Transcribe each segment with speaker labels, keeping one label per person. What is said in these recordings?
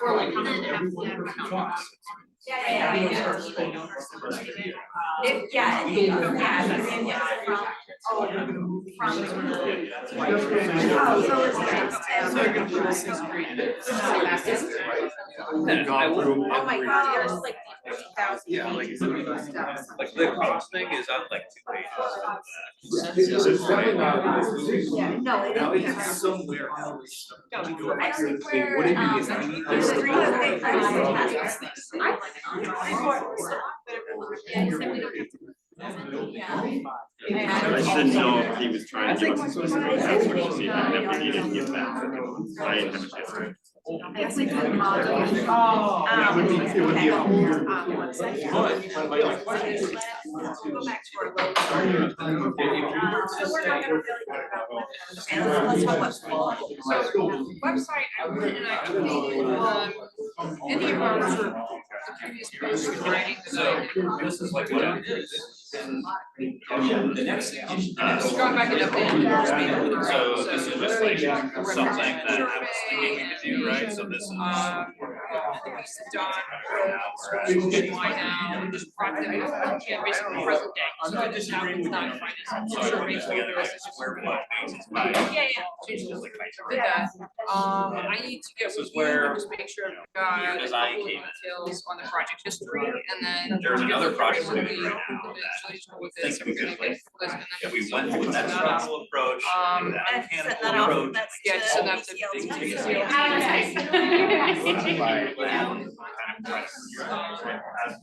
Speaker 1: Or we come in and have to-
Speaker 2: yeah, yeah, yeah. If, yeah, if, yeah, I mean, yeah, from, oh, from the. Oh, so it's
Speaker 3: It's like a little sister.
Speaker 4: I would,
Speaker 2: Oh my god, there's like forty thousand.
Speaker 3: Yeah, like-
Speaker 4: like the cost thing is on like two pages.
Speaker 2: Yeah, no, it
Speaker 3: Now
Speaker 2: is.
Speaker 3: it's somewhere.
Speaker 2: I don't think where,
Speaker 3: What do you
Speaker 2: um,
Speaker 3: mean?
Speaker 2: there's a reason they- I was
Speaker 3: Yeah.
Speaker 2: like, that's the thing. I like, I don't know, I don't know. Yeah, he said we don't have to- Yeah.
Speaker 5: And I should know if he was trying to give us a specific answer to see
Speaker 2: Yeah.
Speaker 5: if we needed to give back. I didn't have a chance. to-
Speaker 2: It's like the apology.
Speaker 6: Uh,
Speaker 3: Oh.
Speaker 2: Um,
Speaker 5: It would be, it would be a
Speaker 2: okay.
Speaker 5: weird.
Speaker 2: Um, one second.
Speaker 3: But.
Speaker 2: So let's go back to our low. Um, so we're not gonna really think about what. Okay, let's, let's talk about school.
Speaker 6: Website, I went and I updated on any of our sort of the previous posts and writing, so
Speaker 3: This is like
Speaker 4: what
Speaker 3: what
Speaker 4: it
Speaker 3: it is.
Speaker 4: The next thing.
Speaker 6: just going back and updating. the
Speaker 4: So this is just like something that I
Speaker 6: Survey,
Speaker 4: was thinking to do, right? So this is.
Speaker 6: Um, Lisa Don, why now, just brought them, in, yeah, basically present day, so it just happens not to find it.
Speaker 4: So
Speaker 6: so
Speaker 4: I
Speaker 6: sure,
Speaker 4: put it
Speaker 6: basically,
Speaker 4: together, I
Speaker 6: this
Speaker 4: said,
Speaker 6: is just-
Speaker 4: where what basis by.
Speaker 6: Yeah, yeah,
Speaker 4: Change just like my.
Speaker 6: did that, um, I need to get
Speaker 4: This
Speaker 6: with
Speaker 4: is
Speaker 6: you,
Speaker 4: where
Speaker 6: and just make sure I've got a
Speaker 4: design
Speaker 6: couple of
Speaker 4: came in.
Speaker 6: details on the project history, and then.
Speaker 4: There's
Speaker 6: get
Speaker 4: another
Speaker 6: the
Speaker 4: project we're
Speaker 6: framework
Speaker 4: doing
Speaker 6: we
Speaker 4: right now
Speaker 6: looked at,
Speaker 4: that
Speaker 6: so just with this,
Speaker 4: think we could,
Speaker 6: everything
Speaker 4: like,
Speaker 6: is with this, and
Speaker 4: If
Speaker 6: then
Speaker 4: we went with that
Speaker 6: Set that up.
Speaker 4: structural approach,
Speaker 6: Um,
Speaker 4: that
Speaker 2: And send that
Speaker 4: mechanical
Speaker 2: off,
Speaker 4: approach.
Speaker 2: that's
Speaker 6: Yeah,
Speaker 2: to
Speaker 6: send that to
Speaker 2: BCLT.
Speaker 6: the BCLT.
Speaker 4: Kind of press, uh,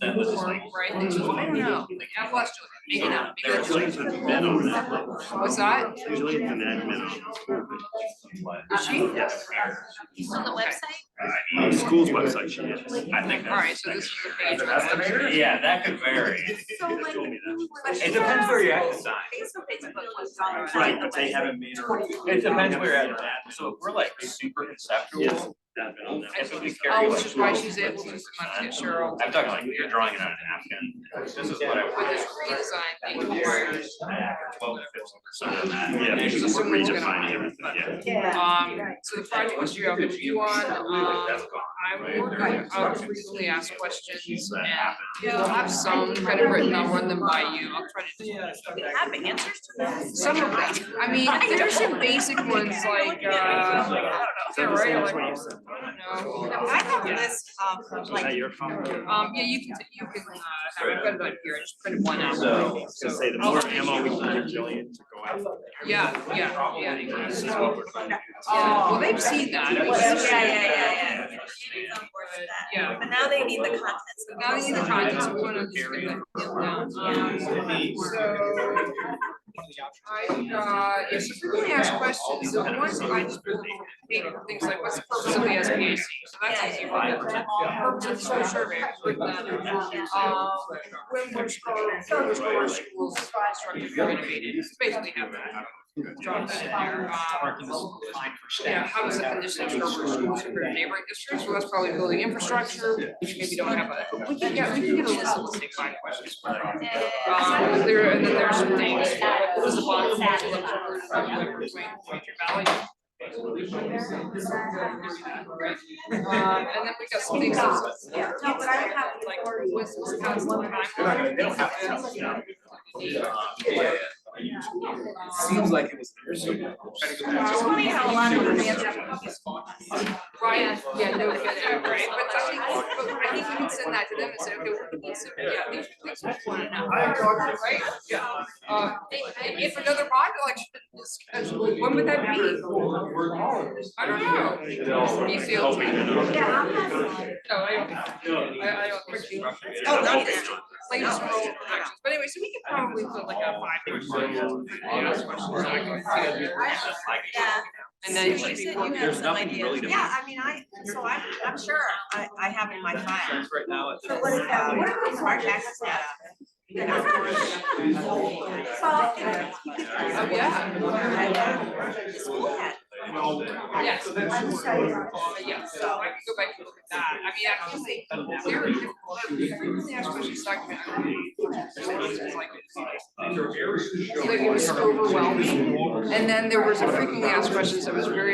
Speaker 4: That was just like.
Speaker 6: Right, they just- I don't know, like, I'm lost to it, maybe not, maybe
Speaker 4: There
Speaker 6: it's
Speaker 5: There's like
Speaker 6: like,
Speaker 5: the men on that. level.
Speaker 6: what's that?
Speaker 5: Usually it's an admin on the school,
Speaker 4: Yes.
Speaker 2: It's on the website?
Speaker 5: but on the school's website, she is.
Speaker 4: I think that's.
Speaker 6: Alright, so this is the page. with that.
Speaker 4: Yeah, that could vary.
Speaker 2: So
Speaker 5: She
Speaker 2: like.
Speaker 5: told me that.
Speaker 4: It depends where you're at the time.
Speaker 2: Facebook, Facebook was on the website.
Speaker 5: Right, but they haven't made her.
Speaker 4: It depends where you're at. So if we're like super conceptual.
Speaker 5: Yes. admin on that.
Speaker 4: If we carry
Speaker 6: Oh,
Speaker 4: like.
Speaker 6: which is why she's able to, not get Cheryl,
Speaker 4: I'm talking like you're drawing it on a napkin. This is what I
Speaker 6: but
Speaker 4: want.
Speaker 6: this redesign thing requires,
Speaker 4: Twelve to fifteen percent of that.
Speaker 5: Yeah,
Speaker 4: And
Speaker 5: because
Speaker 6: just
Speaker 5: we're
Speaker 6: assume it's gonna-
Speaker 5: redefining everything, yeah.
Speaker 6: um, so the project history I'll review on, um, I will, I'll briefly ask questions and. You know, I've some kind of written, I'll run them by you, I'll try to.
Speaker 2: We have answers to those.
Speaker 6: Some of them, I mean, there's some basic ones like, uh, I don't know,
Speaker 5: Is that the
Speaker 6: right,
Speaker 5: same
Speaker 6: like,
Speaker 5: as what you
Speaker 6: I
Speaker 5: said?
Speaker 6: don't know.
Speaker 2: I have a list of
Speaker 5: Was that
Speaker 2: like.
Speaker 5: your phone?
Speaker 6: Um, yeah, you can, you can, uh, I've got it on here, I just printed one out.
Speaker 4: So,
Speaker 5: I was gonna say, the more ammo we can give Jillian to go after.
Speaker 6: Yeah, yeah, yeah.
Speaker 5: This is what we're trying to do.
Speaker 6: Oh, well, they've seen that.
Speaker 2: Yeah, yeah, yeah, yeah, yeah.
Speaker 6: Yeah.
Speaker 2: But now they need the contents.
Speaker 6: But Now you need the contents, we want to just get that nailed down. Um, So. I, uh, if you really ask questions, so once I just pull up paper, things like, what's the purpose of the S P A C? So that's easy one. Purpose of the social survey, break that down. Um, when we're scoring, so we're scoring schools, constructive or innovative, it's basically have that. Drop that in there. Um, yeah, how does the condition of schools compare to neighboring districts? Well, that's probably building infrastructure, which maybe don't have a, we can get, we can get a list of let's say five questions. Um, there, and then there's some things, like, what is the bottom line of the future value? Um, and then we got some things that's.
Speaker 2: Yeah. Oh,
Speaker 6: No, but I have like, what's, what's the council timeline? Um,
Speaker 3: Seems like it was there.
Speaker 2: It's funny
Speaker 3: Oh,
Speaker 2: how a lot of them answer.
Speaker 6: Right, yeah, no, but, right, but I think, but I think you can send that to them and say, okay, we need some, yeah, these are things we wanna know. Right? Yeah. Uh, and if another bond election is scheduled, when would that be? I don't know. You feel-
Speaker 5: Hoping they're not.
Speaker 2: Yeah, I'm not-
Speaker 6: No, I don't, I, I don't. think-
Speaker 2: Oh, no, no, no.
Speaker 6: Like, just roll the projections. but anyway, so we could probably put like a five question.
Speaker 2: Yeah.
Speaker 6: And then it
Speaker 2: So
Speaker 6: should
Speaker 2: you
Speaker 6: be
Speaker 2: said
Speaker 6: one.
Speaker 2: you have
Speaker 4: There's
Speaker 2: some
Speaker 4: nothing
Speaker 2: idea.
Speaker 4: really to-
Speaker 2: Yeah, I mean, I, so I'm, I'm sure I, I have in my file. Um,
Speaker 4: Right now, it's.
Speaker 2: So what is that? What are those smart taxes that? Well, it's-
Speaker 6: Oh, yeah.
Speaker 2: the school had.
Speaker 6: Yes. But yeah, so I can go back and look at that. I mean, I feel like very different. Really ask questions document. Like it was overwhelming. And then there was a frequently asked questions that was very